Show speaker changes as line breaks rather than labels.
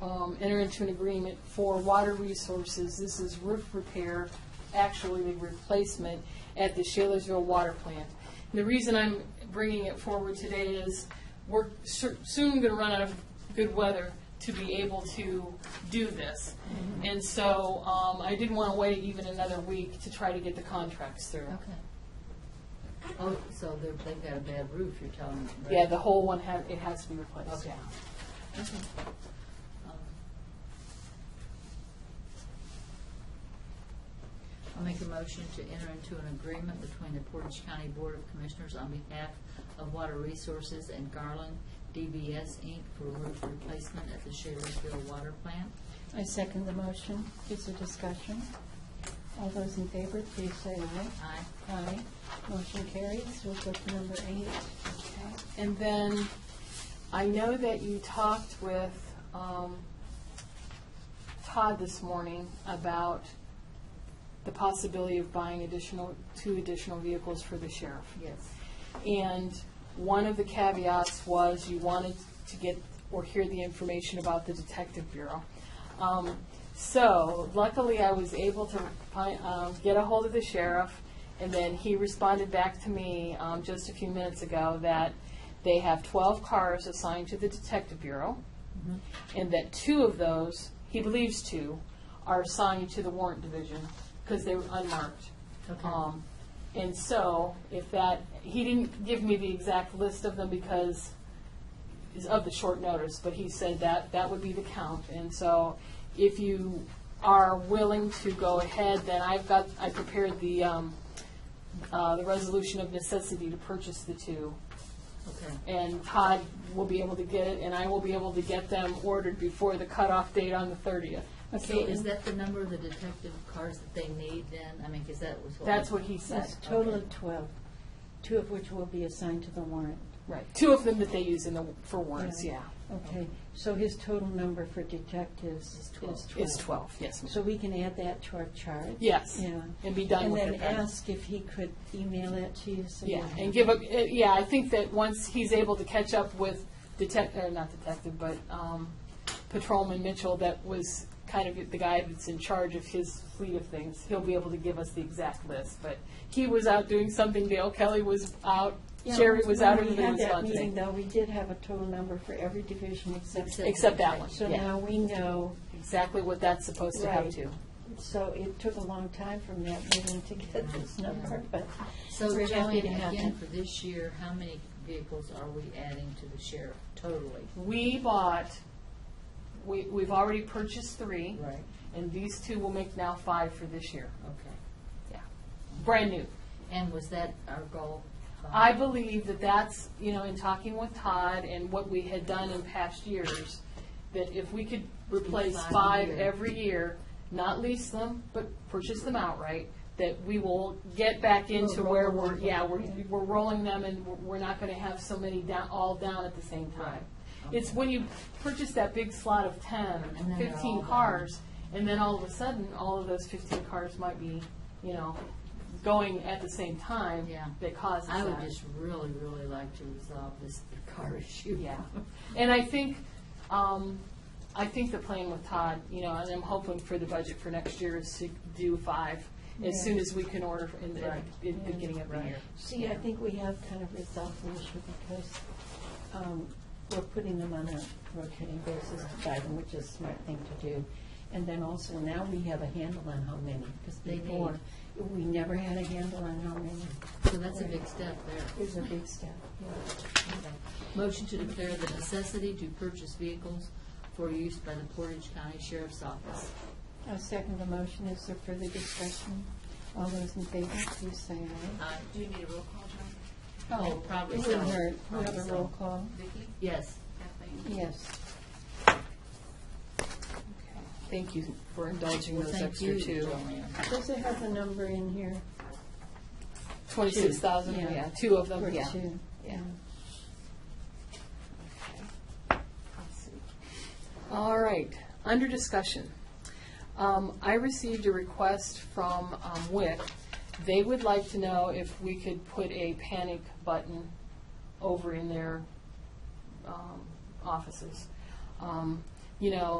um, enter into an agreement for water resources. This is roof repair, actually the replacement at the Shalersville Water Plant. The reason I'm bringing it forward today is we're cer- soon going to run out of good weather to be able to do this. And so um, I didn't want to wait even another week to try to get the contracts through.
Okay. Oh, so they're, they've got a bad roof, you're telling me. right?
Yeah, the whole one, ha- it has to be replaced.
Okay. Okay. Um, I'll make a motion to enter into an agreement between the Portage County Board of Commissioners on behalf of Water Resources and Garland DBS Inc. for roof replacement at the Shaler'sville Water Plant.
I second the motion. Is there discussion? All those in favor, please say aye.
Aye.
Aye. Motion carries. We'll go to number eight. Okay.
And then, I know that you talked with um, Todd this morning about the possibility of buying additional, two additional vehicles for the sheriff.
Yes.
And one of the caveats was you wanted to get or hear the information about the Detective Bureau. Um, So luckily, I was able to find, um, get a hold of the sheriff, and then he responded back to me um, just a few minutes ago that they have 12 cars assigned to the Detective Bureau, and that two of those, he believes two, are assigned to the Warrant Division because they were unmarked.
Okay.
Um, and so, if that, he didn't give me the exact list of them because it's of the short notice, but he said that that would be the count. And so, if you are willing to go ahead, then I've got, I prepared the, um, uh, the resolution of necessity to purchase the two.
Okay.
And Todd will be able to get it, and I will be able to get them ordered before the cutoff date on the thirtieth.
So is that the number of the detective cars that they need then? I mean, is that was what?
That's what he said.
That's a total of 12, two of which will be assigned to the warrant.
Right. Two of them that they use in the, for warrants,
Right.
yeah.
Okay, so his total number for detectives
Is
is
12.
12.
It's 12, yes. ma'am.
So we can add that to our chart?
Yes,
Yeah.
and be done
And
with
then
it. then.
ask if he could email it to you. so you
Yeah,
have
and
it.
give up, eh, yeah, I think that once he's able to catch up with detect, or not detective, but um, Patrolman Mitchell, that was kind of the guy that's in charge of his fleet of things, he'll be able to give us the exact list. But he was out doing something, Dale Kelly was out,
Yeah,
Jerry was out, everybody
When
was
we had that
gone
meeting,
today.
though, we did have a total number for every division except,
Except-
Except that one,
so
yeah,
now we know,
exactly what that's supposed to have
Right.
to.
so it took a long time from that meeting to get this number, but
So
we're
Joanne,
happy to have
again,
it.
for this year, how many vehicles are we adding to the sheriff totally?
We bought, we, we've already purchased three,
Right.
and these two will make now five for this year,
Okay.
yeah, brand new.
And was that our goal?
I believe that that's, you know, in talking with Todd and what we had done in past years, that if we could replace
Five a
five
year.
every year, not lease them, but purchase them outright, that we will get back into
We'll
where
roll
we're,
them.
yeah, we're, we're rolling them and we're- we're not gonna have so many down, all down at the same time. It's when you purchase that big slot of ten,
And then they're all
fifteen
down.
cars, and then all of a sudden, all of those fifteen cars might be, you know, going at the same time.
Yeah.
That causes
I would
that.
just really, really like to resolve this car issue.
Yeah, and I think, um, I think the plan with Todd, you know, and I'm hoping for the budget for next year is to do five as soon as we can order in the,
Right.
at the beginning of the year.
See, I think we have kind of resolved the issue because um, we're putting them on a rotating basis to buy them, which is a smart thing to do. And then also now we have a handle on how many, because
They need.
before, we never had a handle on how many.
So that's a big step there.
It's a big step. yeah.
Okay. Motion to declare the necessity to purchase vehicles for use by the Portage County Sheriff's Office.
I second the motion. Is there further discussion? All those in favor, please say aye.
Aye.
Uh, Do you need a roll call, John?
Oh, probably
It wouldn't
so.
hurt. We'll
Probably
have a
so.
roll call.
Vicki?
Yes.
Kathleen?
Yes.
Thank you for indulging
Well,
those
thank
extra
you,
two.
Joanne.
Does it have the number in here?
Twenty-six thousand,
Two, yeah.
yeah, two of them,
Or
yeah.
two?
Yeah. Let's see. All right, under discussion. Um, I received a request from um, WIC. They would like to know if we could put a panic button over in their um, offices. Um, you know,